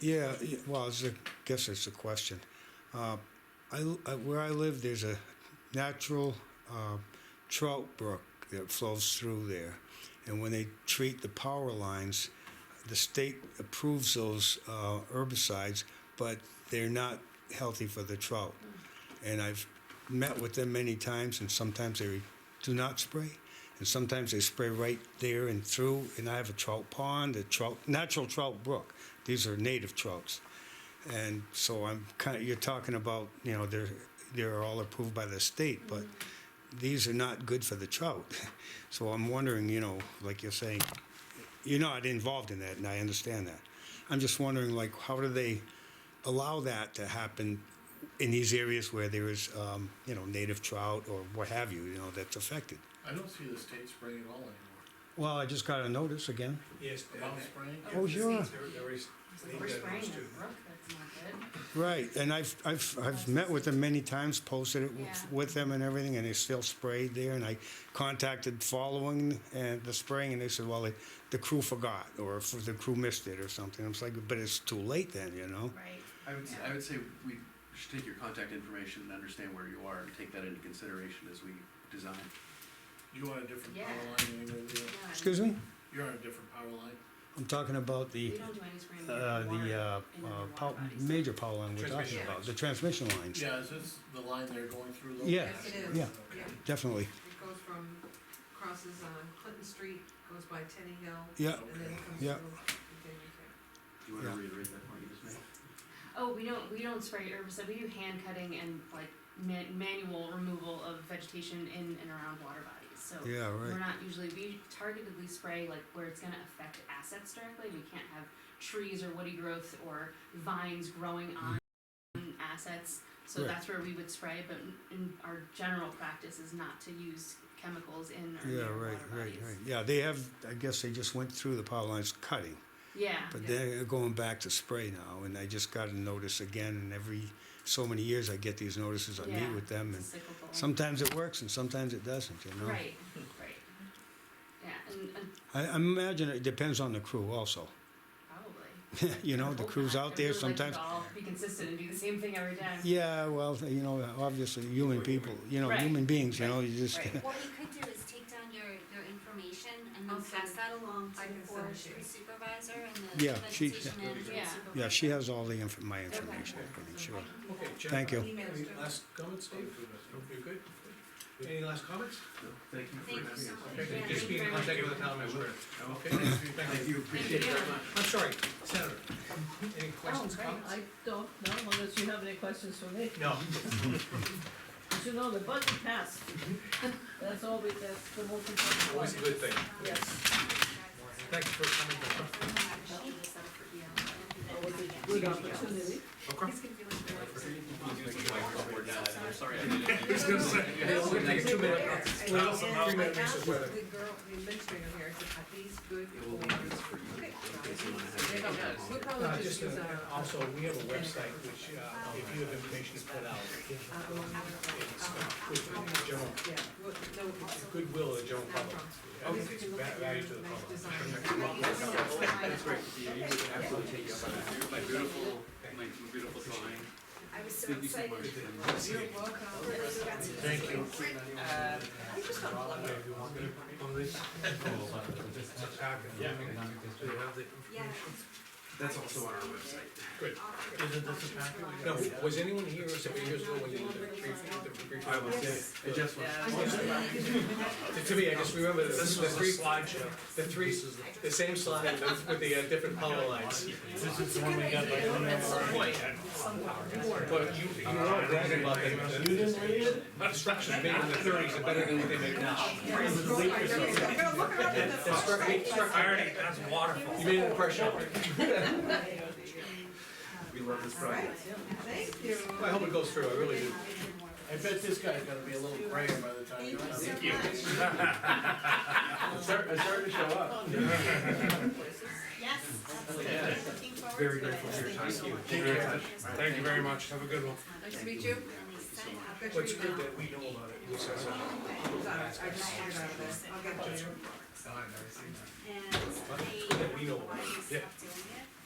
Yeah, y- well, it's a, guess it's a question. Uh, I, I- where I live, there's a natural uh, trout brook that flows through there. And when they treat the power lines, the state approves those uh, herbicides, but they're not healthy for the trout. And I've met with them many times, and sometimes they do not spray, and sometimes they spray right there and through. And I have a trout pond, a trout, natural trout brook. These are native trouts, and so I'm kind of. You're talking about, you know, they're they're all approved by the state, but these are not good for the trout. So I'm wondering, you know, like you're saying, you're not involved in that, and I understand that. I'm just wondering, like, how do they allow that to happen in these areas where there is, um, you know, native trout or what have you, you know, that's affected? I don't see the state spraying at all anymore. Well, I just got a notice again. Yes, Brown spraying? Oh, sure. There, there is. We're spraying the brook, that's not good. Right, and I've, I've, I've met with them many times, posted it Yeah. with- with them and everything, and they still sprayed there, and I contacted following and the spraying, and they said, well, it- the crew forgot, or if the crew missed it or something. I was like, but it's too late then, you know? Right. I would, s- I would say we should take your contact information and understand where you are and take that into consideration as we design. You want a different Yeah. power line than we do? No, Excuse me? You're on a different power line? I'm talking about the. We don't do any spraying. Uh, the uh, uh, pow- major power line we're talking Transmission about, lines. the transmission lines. Yeah, is this the line they're going through? though? Yeah, Yes, it is. yeah. Okay. Yeah, Definitely. it goes from, crosses on Clinton Street, goes by Teddy Hill, Yeah, and then comes Yeah. through. Do you wanna Yeah. reiterate that point you just made? Oh, we don't we don't spray herbicide. We do hand cutting and like man, manual removal of vegetation in and around water bodies. So yeah, we're right. not usually we targetedly spray like where it's going to affect assets directly. We can't have trees or woody growth or vines growing on assets. So Mm-hmm. Right. that's where we would spray. But in our general practice is not to use chemicals in or Yeah, near right, water right, bodies. right. Yeah, they have, I guess they just went through the power lines cutting, Yeah. but yeah. they're going back to spray now, and I just got a notice again, and every so many years I get these notices, I meet Yeah. with them, and It's a cyclical. sometimes it works and sometimes it doesn't, you know? Right. Right. Yeah, and, and I, I imagine it depends on the crew also. probably. You know, the Hope crew's not. out I there really like sometimes. to all be consistent and do the same thing every time. Yeah, well, you know, obviously, human people, you know, Right, human beings, you right, know, you just. right. What you could do is take down your, your information and I'll then pass send- that along to I can the send forestry it to you. supervisor and the Yeah, she- vegetation Yeah. manager Oh, and supervisor. Yeah, she has all the inf- my information, I'm pretty sure. Okay, Jeff. Thank you. Email Any us. last comments, Steve? You're good? Any last comments? No, Thank you for Thank you having us. so much. Okay, Yeah, just thank be you in very contact much. with the town manager. Okay, Thank thank you. you, appreciate it you. very much. I'm sorry, Senator, any questions, Oh, comments? I don't know, unless you have any questions for me, No, As you know, the budget passed. That's always, that's the most important always a one. good thing. Yes. Thank you for coming down. That was a He's good opportunity. gonna be like, "Where is it?" I'm sorry I didn't. He's gonna say, yeah, we're gonna take a two minute. There, I- Well, somehow and we I gotta mix asked it with The girl, the administrator here, I said, are these good It will be for-" good for you. Okay. Okay, so you wanna have- They don't- No, We'll probably just just, uh, use our. also, we have a website which, uh, if you have information to put out, uh, our own- it's, uh, good for the general, Yeah, we'll- no, it's- goodwill of the general not public. from- I we think could it's look va- at value your to the nice public. design. That's great. Yeah, you would absolutely take up on that. My beautiful, my beautiful drawing. I was so Thank you so excited. much. You're welcome. Thank you. I just don't love it. Yeah. Yeah. That's also on our website. Isn't this a packet? No, was anyone here several years ago when you did the brief, the brief? I was, yeah, it just was. To me, I just remember the, the three, the three, the same slide with with the uh, different color lines. But you, you were all bragging about the. You didn't read it? Obstruction made in the thirties are better than what they make now. I'm gonna look around in the That struck me- struck me. that's waterfall. You made an impression. We love this All right, project. thank you. I hope it goes through, I really do. I bet this guy's gonna be a little grayer by the time Thank you're you done. so much. I started, I started to show up. Yes, Yeah. looking forward Very grateful for your time. Thank you. Thank you very much, have a good one. Nice to meet you. I've got What's your good email. that we know about it. Lisa, so- Sorry, I just figured out this. I'll get it later. And they we know. why you Yeah. stopped doing it.